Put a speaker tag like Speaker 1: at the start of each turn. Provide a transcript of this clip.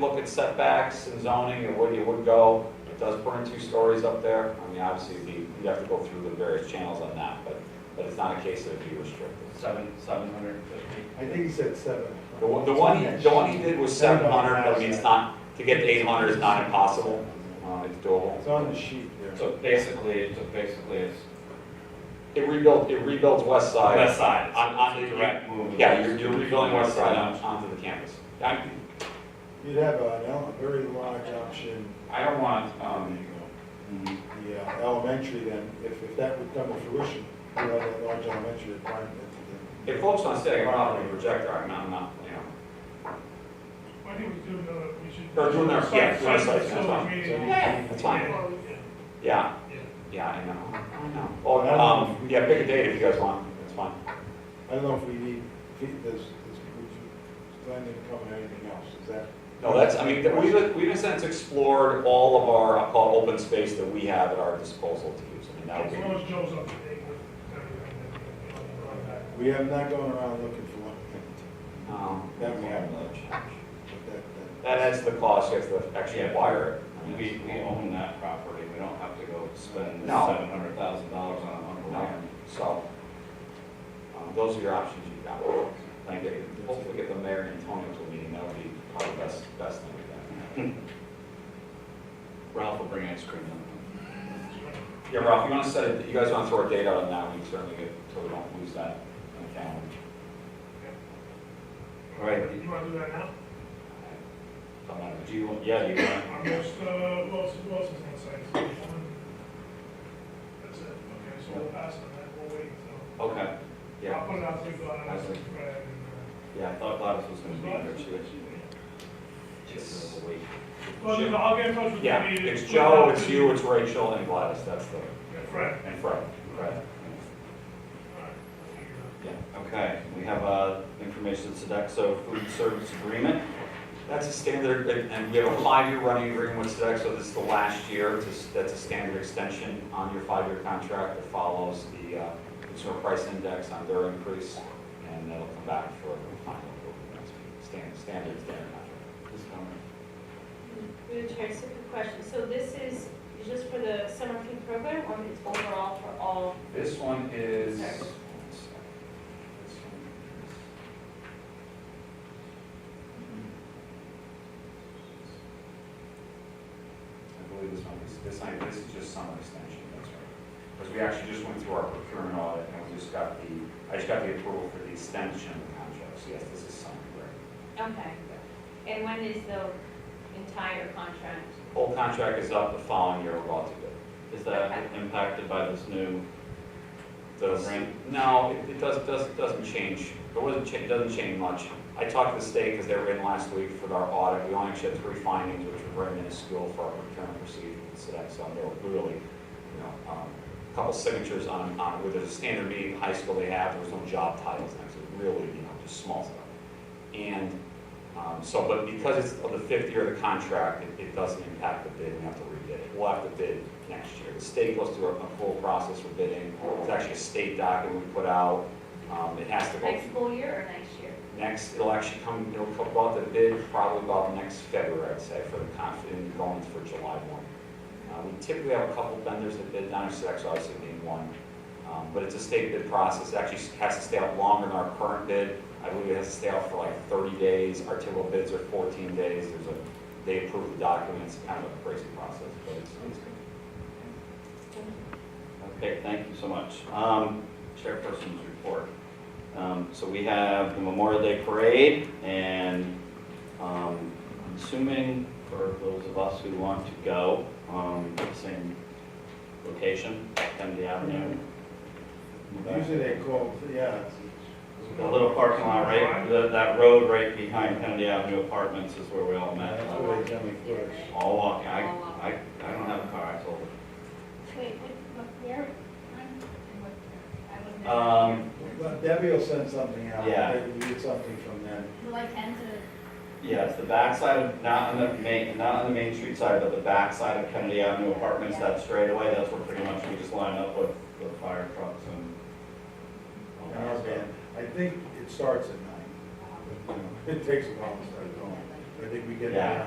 Speaker 1: Look at setbacks and zoning and where you would go. It does put in two stories up there. I mean, obviously, the- you'd have to go through the various channels on that, but, but it's not a case of be restricted.
Speaker 2: Seven, seven hundred and fifty.
Speaker 3: I think he said seven.
Speaker 1: The one, the one, he- the one he did was seven hundred, but I mean, it's not, to get to eight hundred is not impossible. Uh, it's doable.
Speaker 3: It's on the sheet there.
Speaker 2: So basically, so basically it's
Speaker 1: It rebuilt, it rebuilds west side.
Speaker 2: west side.
Speaker 1: On, on the,
Speaker 2: Direct move.
Speaker 1: yeah, you're, you're rebuilding west side on, onto the campus. I,
Speaker 3: You'd have an ele- very large option,
Speaker 1: I don't want,
Speaker 3: um,
Speaker 1: um,
Speaker 2: Mhm.
Speaker 3: the uh, elementary then, if, if that would come to fruition, you have a large elementary requirement. to
Speaker 1: if folks want to stay, I'm not a projector, I'm not, I'm not, you know,
Speaker 4: I think we do know that we should.
Speaker 1: Or do another- yeah, do another site,
Speaker 4: Site,
Speaker 1: that's
Speaker 4: so, I
Speaker 1: fine.
Speaker 3: do. So you-
Speaker 4: mean,
Speaker 1: Yeah, that's fine.
Speaker 4: well,
Speaker 1: yeah.
Speaker 4: yeah, yeah.
Speaker 1: Yeah, I know, I know.
Speaker 3: Well, I don't
Speaker 1: Well,
Speaker 3: know if
Speaker 1: um,
Speaker 3: we-
Speaker 1: yeah, pick a date if you guys want, that's fine.
Speaker 3: I don't know if we need, if he- does, does, would you plan to cover anything else, is that?
Speaker 1: No, that's, I mean, we've, we've in a sense explored all of our, I'll call it open space that we have at our disposal to use. I mean, that would
Speaker 4: As
Speaker 1: be,
Speaker 4: long as Joe's up to date with everything.
Speaker 3: We have not gone around looking for one, empty,
Speaker 1: um,
Speaker 3: that we have not. But that-
Speaker 1: that adds to the cost, you have to actually
Speaker 2: Yeah.
Speaker 1: wire it.
Speaker 2: We, we own that property, we don't have to go spend
Speaker 1: No.
Speaker 2: seven hundred thousand dollars on a hundred
Speaker 1: No,
Speaker 2: land.
Speaker 1: so, um, those are your options you've got. Thank you. Hopefully get the mayor and Tony to a meeting, that would be probably the best, best thing we've done.
Speaker 2: Ralph will bring ice cream in.
Speaker 1: Yeah, Ralph, you want to set, it- you guys want to throw a date out on that, we can certainly get, so we don't lose that on the calendar.
Speaker 2: Right.
Speaker 4: You wanna do that now?
Speaker 1: Come on,
Speaker 2: Do you, yeah, do you want?
Speaker 4: Our most, uh, Wilson, Wilson's on site. so one- That's it, okay, so we'll pass on that, we'll wait until.
Speaker 2: Okay,
Speaker 1: Yeah,
Speaker 4: I'll put it out to you, uh, but I'll ask you, uh,
Speaker 1: yeah.
Speaker 2: I thought Gladys was gonna be here, she was.
Speaker 1: It's-
Speaker 2: Just a week.
Speaker 4: Well, you know, I'll get in touch with you.
Speaker 1: Yeah, it's Joe, it's you, it's Rachel, and Gladys, that's the,
Speaker 4: Yeah, Fred.
Speaker 1: and Fred. Fred.
Speaker 4: All right, I'll figure it out.
Speaker 1: Yeah.
Speaker 2: Okay, we have, uh, information Sedexo food service agreement.
Speaker 1: That's a standard, and- and we have a five-year running agreement with Sodexo, this is the last year, It's a s- that's a standard extension on your five-year contract that follows the uh, consumer price index on their increase, and that'll come back for a final approval next week. Stan- standard, standard contract.
Speaker 2: Just tell me.
Speaker 5: Madam Chair, just a quick question. So this is just for the summer food program or it's overall for all?
Speaker 1: This one is.
Speaker 5: Sorry.
Speaker 1: I believe this one is, this one, this is just summer extension, that's right. Because we actually just went through our procurement audit and we just got the, I just got the approval for the extension of the contract, so yes, this is summer, right?
Speaker 5: Okay. And when is the entire contract?
Speaker 1: Whole contract is up the following year, we're all to go.
Speaker 2: Is that impacted by this new
Speaker 1: Does-
Speaker 2: Right.
Speaker 1: No, it it doesn't, doesn't, doesn't change. It wasn't, cha- it doesn't change much. I talked to the state because they were in last week for our audit. We only actually had three findings, which were very minuscule for our procurement procedure with Sodexo. And they were really, you know, um, a couple signatures on, on, where there's a standard meeting in high school they have, there was no job titles next to it, really, you know, just small stuff. And, um, so, but because it's of the fifth year of the contract, it, it doesn't impact the bid, we have to rebid it. We'll have to bid next year. The state goes through a, a full process for bidding. It's actually a state document we put out. Um, it has to go.
Speaker 5: Next school year or next year?
Speaker 1: Next, it'll actually come, it'll come about the bid probably about next February, I'd say, for the confident going for July one. Uh, we typically have a couple vendors that bid, down so that's obviously being one. Um, but it's a state bid process, It actually has to stay out longer than our current bid. I believe it has to stay out for like thirty days, our typical bids are fourteen days, there's a, they approve the documents, kind of a crazy process, but it's, it's good.
Speaker 2: Okay, thank you so much. Um, Chairperson's report. Um, So we have the Memorial Day Parade, and um, I'm assuming for those of us who want to go, um, same location, Kennedy Avenue.
Speaker 3: Usually they call, yeah. it's-
Speaker 2: The little parking lot, right, that- that road right behind Kennedy Avenue Apartments is where we all met.
Speaker 3: That's where they come first.
Speaker 2: All walking, I, I I don't have a car, I told her.
Speaker 6: Wait, what, what, where, I'm- what, I wasn't. there.
Speaker 2: Um,
Speaker 3: Well, Debbie will send something out.
Speaker 2: Yeah.
Speaker 3: Maybe we get something from them.
Speaker 6: Will I tend to?
Speaker 2: Yeah, it's the backside of, not on the main, not on the Main Street side, but the backside of Kennedy Avenue Apartments, that straightaway, that's where pretty much we just line up with the fire trucks and. all
Speaker 3: And our
Speaker 2: that
Speaker 3: band,
Speaker 2: stuff.
Speaker 3: I think it starts at nine. but, you know, It takes a while to start going. I think we get
Speaker 2: Yeah.
Speaker 3: down